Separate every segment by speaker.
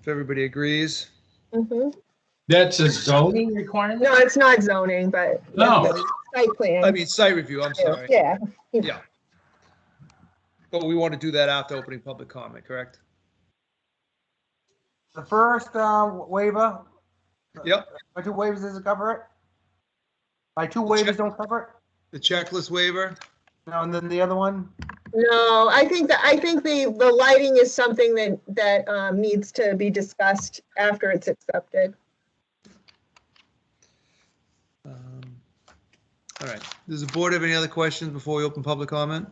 Speaker 1: if everybody agrees.
Speaker 2: Mhm.
Speaker 3: That's a zoning
Speaker 2: No,
Speaker 3: requirement?
Speaker 2: it's not zoning, but.
Speaker 3: No.
Speaker 2: Site plan.
Speaker 1: I mean, site review, I'm sorry.
Speaker 2: Yeah,
Speaker 1: But we want to do that after opening public comment, correct?
Speaker 4: The first uh, waiver.
Speaker 1: Yep.
Speaker 4: By two waivers, does it cover it? By two waivers don't cover
Speaker 1: The checklist waiver?
Speaker 4: it? No, and then the other one?
Speaker 2: no, I think that, I think the, the lighting is something that, that um, needs to be discussed after it's accepted.
Speaker 1: Um, All right, does the board have any other questions before we open public comment?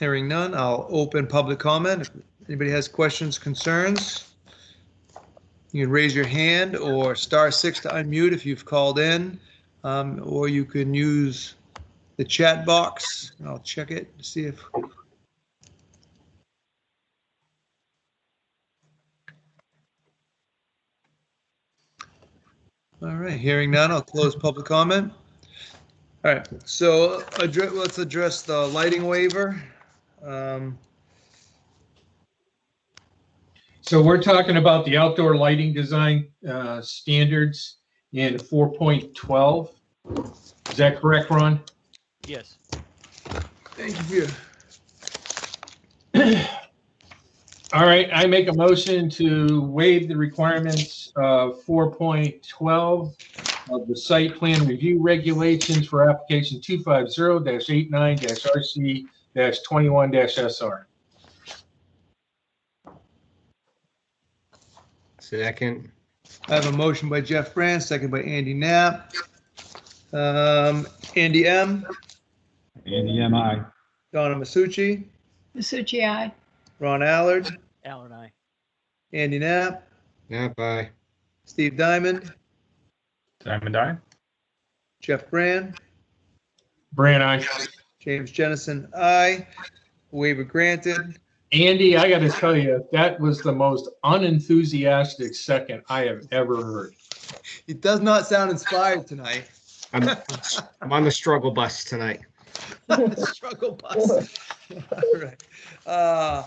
Speaker 1: Hearing none, I'll open public comment. If anybody has questions, concerns, you can raise your hand or star six to unmute if you've called in, Um, or you can use the chat box. I'll check it to see if. All right, hearing none, I'll close public comment. All right, so addre- let's address the lighting waiver. Um,
Speaker 3: So we're talking about the outdoor lighting design uh, standards in 4.12. Is that correct, Ron?
Speaker 5: Yes.
Speaker 1: Thank you.
Speaker 3: All right, I make a motion to waive the requirements of 4.12 of the site plan review regulations for application 250-89-RC-21-SR.
Speaker 6: Second,
Speaker 1: I have a motion by Jeff Brand, second by Andy Knapp. Um, Andy M,
Speaker 7: Andy, am I?
Speaker 1: Donna Masucci,
Speaker 8: Masucci, aye.
Speaker 1: Ron Allard,
Speaker 5: Alan, I.
Speaker 1: Andy Knapp,
Speaker 6: not by.
Speaker 1: Steve Diamond,
Speaker 7: Diamond Eye?
Speaker 1: Jeff Brand,
Speaker 3: Brand, I.
Speaker 1: James Jennison, I. Waiver granted.
Speaker 3: Andy, I got to tell you, that was the most unenthusiastic second I have ever heard.
Speaker 1: He does not sound inspired tonight.
Speaker 6: I'm, I'm on the struggle bus tonight.
Speaker 1: Struggle bus. All right. Uh,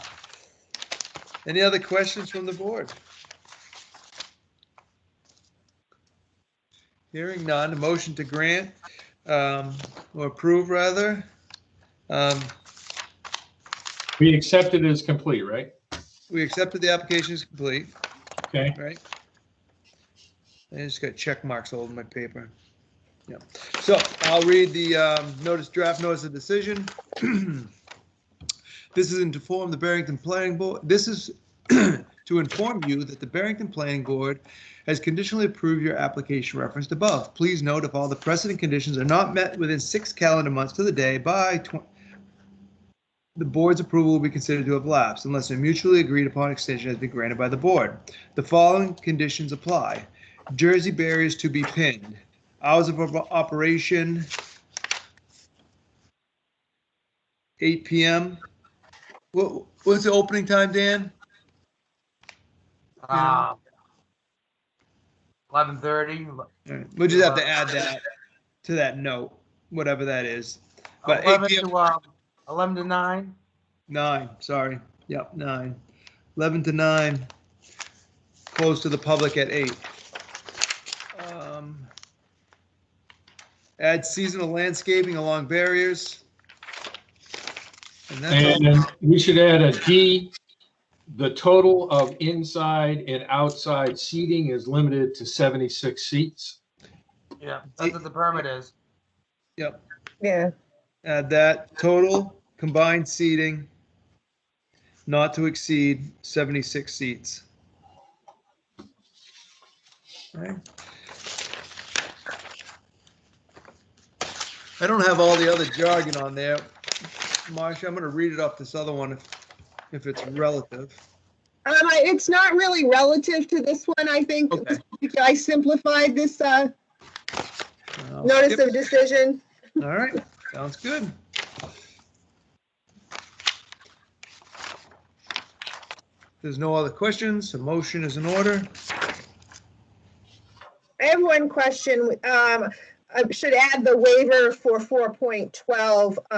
Speaker 1: Any other questions from the board? Hearing none, a motion to grant, um, or approve rather. Um,
Speaker 3: We accepted it as complete, right?
Speaker 1: We accepted the application is complete,
Speaker 3: Okay.
Speaker 1: right? I just got check marks all over my paper. Yeah, so I'll read the um, notice, draft notice of decision. This is to inform the Barrington Planning Board, this is to inform you that the Barrington Planning Board has conditionally approved your application referenced above. Please note if all the precedent conditions are not met within six calendar months to the day by twen- the board's approval will be considered to have lapsed unless a mutually agreed upon extension has been granted by the board. The following conditions apply. Jersey barriers to be pinned. Hours of op- operation, 8 PM. What, what's the opening time, Dan? Yeah.
Speaker 4: Um, 11:30.
Speaker 1: All right, We'll just have to add that to that note, whatever that is. But 8
Speaker 4: 11
Speaker 1: PM,
Speaker 4: to, um, 11 to 9.
Speaker 1: nine, sorry. Yep, nine. 11 to nine. Close to the public at eight. Um, Add seasonal landscaping along barriers. And that's
Speaker 3: And
Speaker 1: all.
Speaker 3: then we should add a D, the total of inside and outside seating is limited to 76 seats.
Speaker 4: Yeah, that's what the permit is.
Speaker 1: Yep,
Speaker 2: yeah.
Speaker 1: add that. Total combined seating not to exceed 76 seats. Okay. I don't have all the other jargon on there. Marcia, I'm going to read it off this other one if, if it's relative.
Speaker 2: Um, I- it's not really relative to this one, I think.
Speaker 1: Okay.
Speaker 2: I simplified this, uh,
Speaker 1: Uh,
Speaker 2: notice of decision.
Speaker 1: All right, sounds good. There's no other questions, a motion is in order.
Speaker 2: I have one question. Um, I should add the waiver for four point twelve.